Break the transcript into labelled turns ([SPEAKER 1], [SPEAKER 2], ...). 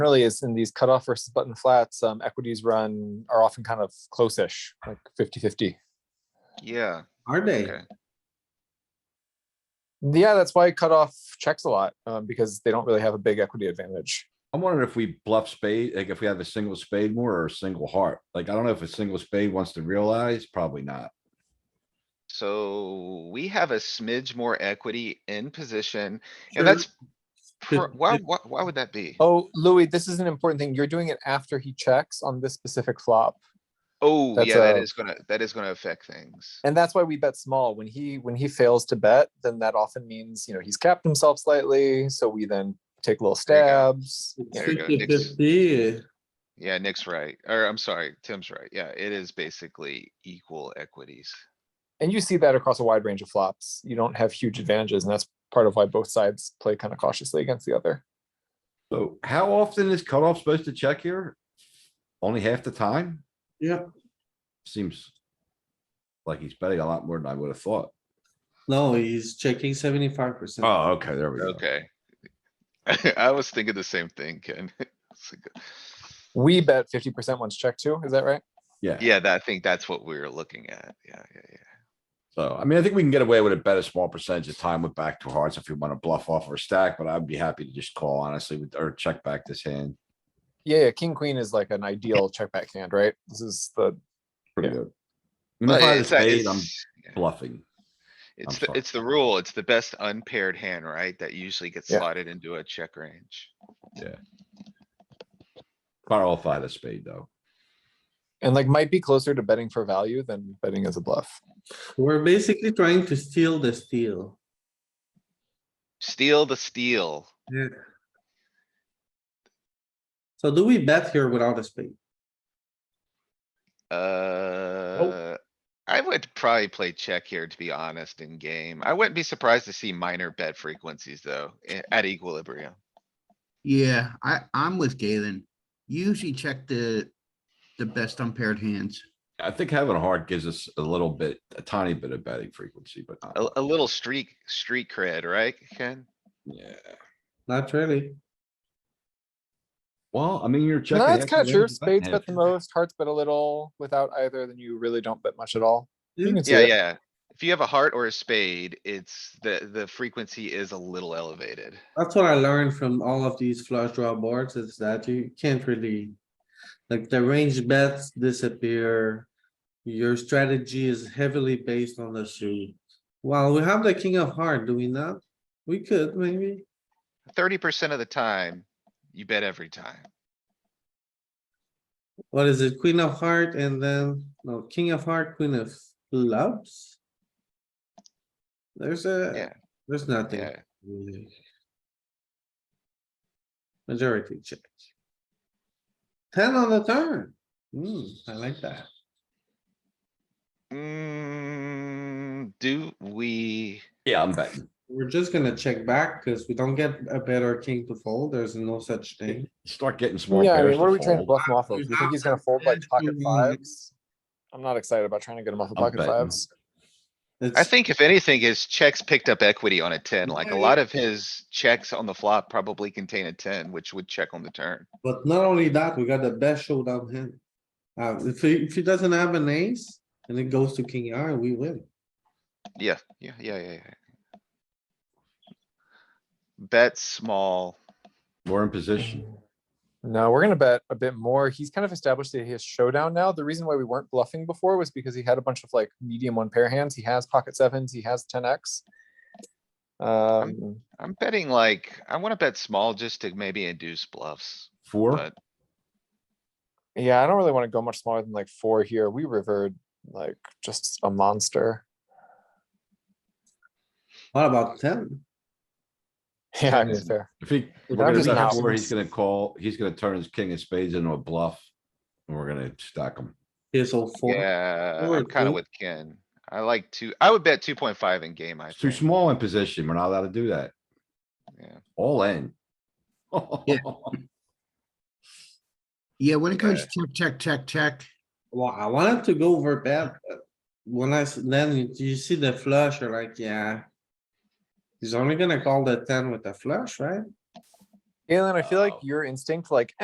[SPEAKER 1] really is in these cutoff versus button flats, um, equities run are often kind of close-ish, like 50-50.
[SPEAKER 2] Yeah,
[SPEAKER 3] Are they?
[SPEAKER 2] okay.
[SPEAKER 1] Yeah, that's why cutoff checks a lot, um, because they don't really have a big equity advantage.
[SPEAKER 4] I'm wondering if we bluff spade, like if we have a single spade more or a single heart. Like, I don't know if a single spade wants to realize, probably not.
[SPEAKER 2] So we have a smidge more equity in position
[SPEAKER 3] Sure.
[SPEAKER 2] and that's.
[SPEAKER 3] Did-
[SPEAKER 2] pro- Why,
[SPEAKER 3] did-
[SPEAKER 2] why, why would that be?
[SPEAKER 1] Oh, Louis, this is an important thing. You're doing it after he checks on this specific flop.
[SPEAKER 2] Oh,
[SPEAKER 1] that's
[SPEAKER 2] yeah, that
[SPEAKER 1] a-
[SPEAKER 2] is gonna, that is gonna affect things.
[SPEAKER 1] And that's why we bet small. When he, when he fails to bet, then that often means, you know, he's capped himself slightly, so we then take little
[SPEAKER 2] There you go.
[SPEAKER 1] stabs.
[SPEAKER 3] It's
[SPEAKER 2] There you go, Nick's-
[SPEAKER 3] 50-50.
[SPEAKER 2] Yeah, Nick's right, or I'm sorry, Tim's right. Yeah, it is basically equal equities.
[SPEAKER 1] And you see that across a wide range of flops. You don't have huge advantages, and that's part of why both sides play kind of cautiously against the other.
[SPEAKER 4] So how often is cutoff supposed to check here? Only half the time?
[SPEAKER 3] Yeah,
[SPEAKER 4] Seems like he's betting a lot more than I would have thought.
[SPEAKER 3] no, he's checking seventy-five percent.
[SPEAKER 4] Oh, okay, there we go.
[SPEAKER 2] Okay. I was thinking the same thing, Ken. It's like-
[SPEAKER 1] We bet fifty percent once check too, is that right?
[SPEAKER 4] Yeah,
[SPEAKER 2] Yeah, that, I think that's what we were looking at. Yeah, yeah, yeah.
[SPEAKER 4] so I mean, I think we can get away with a bet a small percentage of time with back to hearts if we want to bluff off or stack, but I'd be happy to just call honestly with, or check back this hand.
[SPEAKER 1] Yeah, yeah, king, queen is like an ideal check back hand, right? This is the,
[SPEAKER 4] Pretty
[SPEAKER 1] Yeah.
[SPEAKER 4] good. And if I
[SPEAKER 2] But
[SPEAKER 4] had a
[SPEAKER 2] it's a-
[SPEAKER 4] spade, I'm
[SPEAKER 2] it's- yeah.
[SPEAKER 4] bluffing.
[SPEAKER 2] It's
[SPEAKER 4] I'm
[SPEAKER 2] the,
[SPEAKER 4] sorry.
[SPEAKER 2] it's the rule. It's the best unpaired hand, right? That usually gets
[SPEAKER 1] Yeah.
[SPEAKER 2] slotted into a check range.
[SPEAKER 4] Barrel if I had a spade though.
[SPEAKER 1] and like might be closer to betting for value than betting as a bluff.
[SPEAKER 3] We're basically trying to steal the steal.
[SPEAKER 2] Steal the steal.
[SPEAKER 3] Yeah. So do we bet here without a spade?
[SPEAKER 2] Uh, I would probably play check here, to be honest, in game. I wouldn't be surprised to see minor bet frequencies, though, i- at equilibrium.
[SPEAKER 5] Yeah, I, I'm with Galen. You Usually check the, the best unpaired hands.
[SPEAKER 4] I think having a heart gives us a little bit, a tiny bit of betting frequency, but not,
[SPEAKER 2] A, a little streak, street cred, right, Ken?
[SPEAKER 4] yeah.
[SPEAKER 3] Not really.
[SPEAKER 4] Well, I mean, you're checking.
[SPEAKER 1] No, that's
[SPEAKER 4] half
[SPEAKER 1] kind of
[SPEAKER 4] the
[SPEAKER 1] true.
[SPEAKER 4] range, betting
[SPEAKER 1] Spades
[SPEAKER 4] half
[SPEAKER 1] bet the
[SPEAKER 4] your-
[SPEAKER 1] most, hearts bet a little. Without either, then you really don't bet much at all. You can see
[SPEAKER 2] Yeah,
[SPEAKER 1] it.
[SPEAKER 2] yeah. If you have a heart or a spade, it's the, the frequency is a little elevated.
[SPEAKER 3] That's what I learned from all of these flush draw boards is that you can't really. Like the range bets disappear. Your strategy is heavily based on the suit. Well, we have the king of heart, do we not? We could maybe.
[SPEAKER 2] Thirty percent of the time, you bet every time.
[SPEAKER 3] What is it? Queen of heart and then, no, king of heart, queen of clubs? There's a,
[SPEAKER 2] Yeah.
[SPEAKER 3] there's nothing.
[SPEAKER 2] Yeah.
[SPEAKER 3] really. Majority check. Ten on the turn. Hmm, I like that.
[SPEAKER 2] Mm, do we?
[SPEAKER 4] Yeah, I'm betting.
[SPEAKER 3] We're just gonna check back because we don't get a better king to fold. There's no such thing.
[SPEAKER 4] Start getting small
[SPEAKER 1] Yeah, I
[SPEAKER 4] pairs
[SPEAKER 1] mean, what are we
[SPEAKER 4] to
[SPEAKER 1] trying to
[SPEAKER 4] fold.
[SPEAKER 1] bluff him off of? You think he's gonna fold like pocket
[SPEAKER 3] Mm.
[SPEAKER 1] fives? I'm not excited about trying to get him off of
[SPEAKER 4] I'm
[SPEAKER 1] pocket
[SPEAKER 4] betting.
[SPEAKER 1] fives.
[SPEAKER 2] I
[SPEAKER 3] It's-
[SPEAKER 2] think if anything, his checks picked up equity on a ten, like a
[SPEAKER 3] Yeah,
[SPEAKER 2] lot of his checks on the flop probably contain a ten, which would check on the turn.
[SPEAKER 3] But not only that, we got the best showdown hand. Uh, if he, if he doesn't have an ace and it goes to king R, we win.
[SPEAKER 2] Yeah, yeah, yeah, yeah, yeah. Bet small.
[SPEAKER 4] We're in position.
[SPEAKER 1] No, we're gonna bet a bit more. He's kind of established that he has showdown now. The reason why we weren't bluffing before was because he had a bunch of like medium one pair hands. He has pocket sevens, he has ten X. Um,
[SPEAKER 2] I'm betting like, I wanna bet small just to maybe induce bluffs,
[SPEAKER 4] Four,
[SPEAKER 2] but
[SPEAKER 1] yeah, I don't really wanna go much smaller than like four here. We rivered like just a monster.
[SPEAKER 3] What about ten?
[SPEAKER 1] Yeah, I
[SPEAKER 4] Yeah.
[SPEAKER 1] mean, fair.
[SPEAKER 4] if he, we're
[SPEAKER 1] I'm
[SPEAKER 4] gonna
[SPEAKER 1] just
[SPEAKER 4] bet
[SPEAKER 1] not-
[SPEAKER 4] four, he's gonna call, he's gonna turn his king of spades into a bluff. And we're gonna stack him.
[SPEAKER 3] Here's all four.
[SPEAKER 2] yeah,
[SPEAKER 3] Four,
[SPEAKER 2] I'm kinda
[SPEAKER 3] two.
[SPEAKER 2] with Ken. I like two, I would bet two point five in game, I
[SPEAKER 4] It's too
[SPEAKER 2] think.
[SPEAKER 4] small in position. We're not allowed to do that.
[SPEAKER 2] Yeah.
[SPEAKER 4] All in.
[SPEAKER 5] Yeah, when it comes
[SPEAKER 2] Yeah.
[SPEAKER 5] to check, check, check, check,
[SPEAKER 3] Well, I wanted to go over bet, but when I, s- then you- you see the flush, you're like, yeah. He's only gonna call the ten with the flush, right?
[SPEAKER 1] Galen, I feel like
[SPEAKER 4] Oh.
[SPEAKER 1] your instinct, like,